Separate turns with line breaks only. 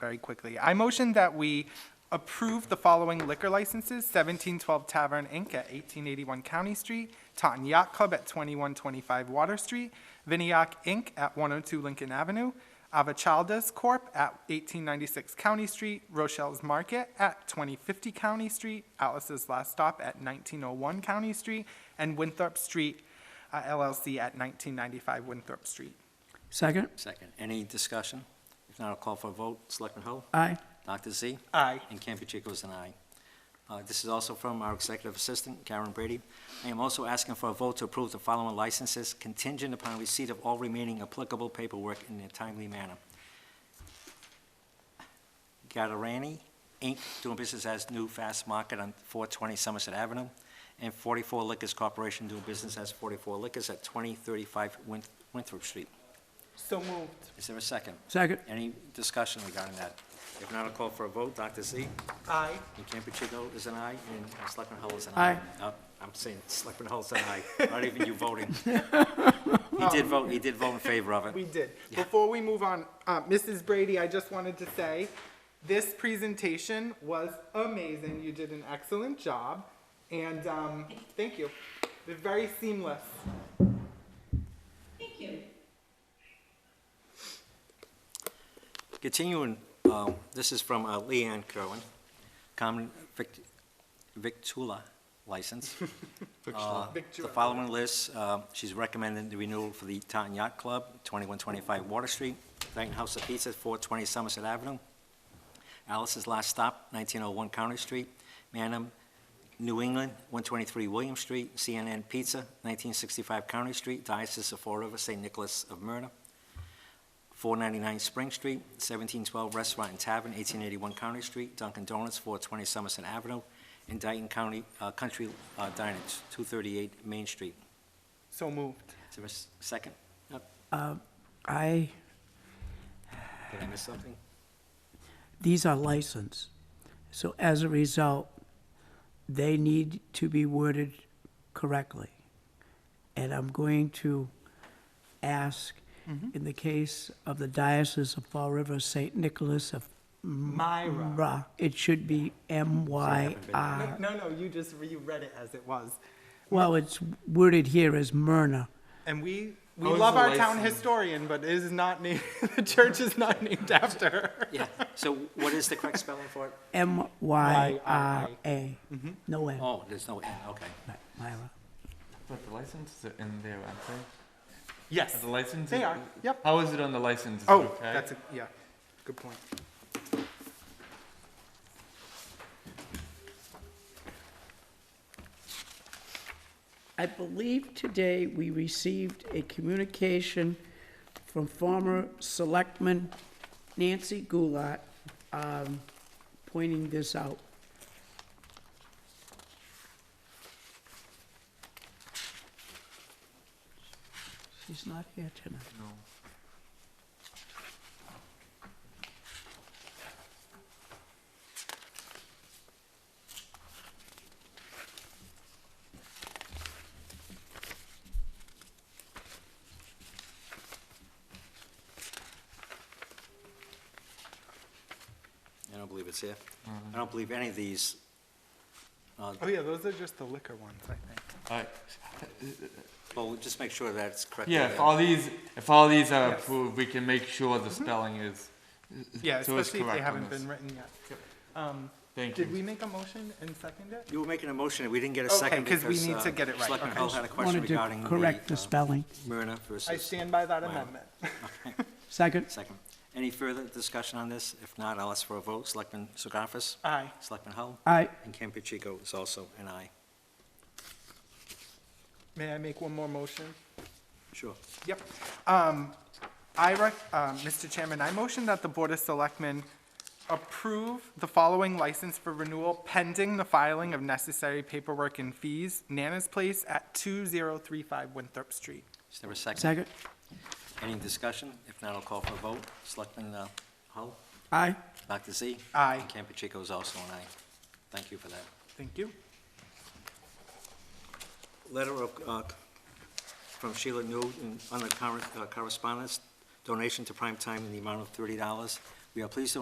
very quickly. I motion that we approve the following liquor licenses, 1712 Tavern Inc. at 1881 County Street, Taunton Yacht Club at 2125 Water Street, Vinayak Inc. at 102 Lincoln Avenue, Avachaldas Corp. at 1896 County Street, Rochelle's Market at 2050 County Street, Alice's Last Stop at 1901 County Street, and Winthrop Street uh, LLC at 1995 Winthrop Street.
Second?
Second. Any discussion? If not, I'll call for a vote. Selectman Hull?
Aye.
Dr. Z?
Aye.
And Campuchico is an aye. Uh, This is also from our executive assistant, Karen Brady. I am also asking for a vote to approve the following licenses contingent upon receipt of all remaining applicable paperwork in a timely manner. Gatorani Inc., doing business as New Fast Market on 420 Somerset Avenue, and 44 Liquors Corporation, doing business as 44 Liquors at 2035 Win- Winthrop Street.
So moved.
Is there a second?
Second?
Any discussion regarding that? If not, I'll call for a vote. Dr. Z?
Aye.
And Campuchico is an aye, and Selectman Hull is an
Aye.
aye. Uh, I'm saying Selectman Hull is an aye, not even you voting. He did vote, he did vote in favor of
We
it.
did. Before we move on, uh, Mrs. Brady, I just wanted to say, this presentation was amazing. You did an excellent job, and um, thank you. They're very seamless.
Thank you.
Continuing, um, this is from uh, Leanne Kerwin, common vic- victula license. Uh, The
Victua.
following list, uh, she's recommending the renewal for the Taunton Yacht Club, 2125 Water Street, Dyton House of Pizza, 420 Somerset Avenue, Alice's Last Stop, 1901 County Street, Manham, New England, 123 William Street, CNN Pizza, 1965 County Street, Diocese of Fall River, St. Nicholas of Myrna, 499 Spring Street, 1712 Restaurant and Tavern, 1881 County Street, Dunkin' Donuts, 420 Somerset Avenue, and Dayton County uh, Country uh, Diners, 238 Main Street.
So moved.
Is there a s- second? Yep.
I,
Did I miss something?
these are licensed. So as a result, they need to be worded correctly. And I'm going to ask, in the case of the Diocese of Fall River, St. Nicholas of
Myra.
Ra, it should be M-Y-R.
No, no, no, you just reread it as it was.
Well, it's worded here as Myrna.
And we, we
How is
love
the
our town
license?
historian, but it is not named, the church is not named after her.
Yeah, so what is the correct spelling for it?
M-Y-R-A. No M,
Oh, there's no N, okay.
Right, Myra.
But the license is in their website?
Yes.
The license?
They
is-
are, yep.
How is it on the license? Is it
Oh,
okay?
that's, a yeah, good point.
I believe today we received a communication from former Selectman Nancy Goulart um, pointing this out. She's not here tonight.
I don't believe it's here. I don't believe any of these,
Oh, yeah, those are just the liquor ones, I think.
Alright.
well, we'll just make sure that's correct.
Yeah, if all these, if all these are
Yes. Mm-hmm.
approved, we can make sure the spelling is,
Yeah,
so it's
especially if they
correct on
haven't
this.
been written yet. Um,
Thank
Did we
you.
make a motion and second it?
You were making a motion, and we didn't get a
Okay,
second
'cause
because...
we need to
uh,
get it right,
Selectman
okay.
Hull had a question
Wanted
regarding
to
the...
correct the
uh,
spelling.
Myrna versus...
I stand by that
Wow.
amendment.
Second?
Second. Any further discussion on this? If not, I'll ask for a vote. Selectman Segafis?
Aye.
Selectman Hull?
Aye.
And Campuchico is also an aye.
May I make one more motion?
Sure.
Yep. Um, I rec, um, Mr. Chairman, I motion that the Board of Selectmen approve the following license for renewal pending the filing of necessary paperwork and fees. Nana's Place at 2035 Winthrop Street.
Is there a second?
Second?
Any discussion? If not, I'll call for a vote. Selectman uh, Hull?
Aye.
Dr. Z?
Aye.
And Campuchico is also an aye. Thank you for that.
Thank you.
Letter of, uh, from Sheila Newton on the current, uh, correspondence, donation to Prime Time in the amount of $30. We are pleased to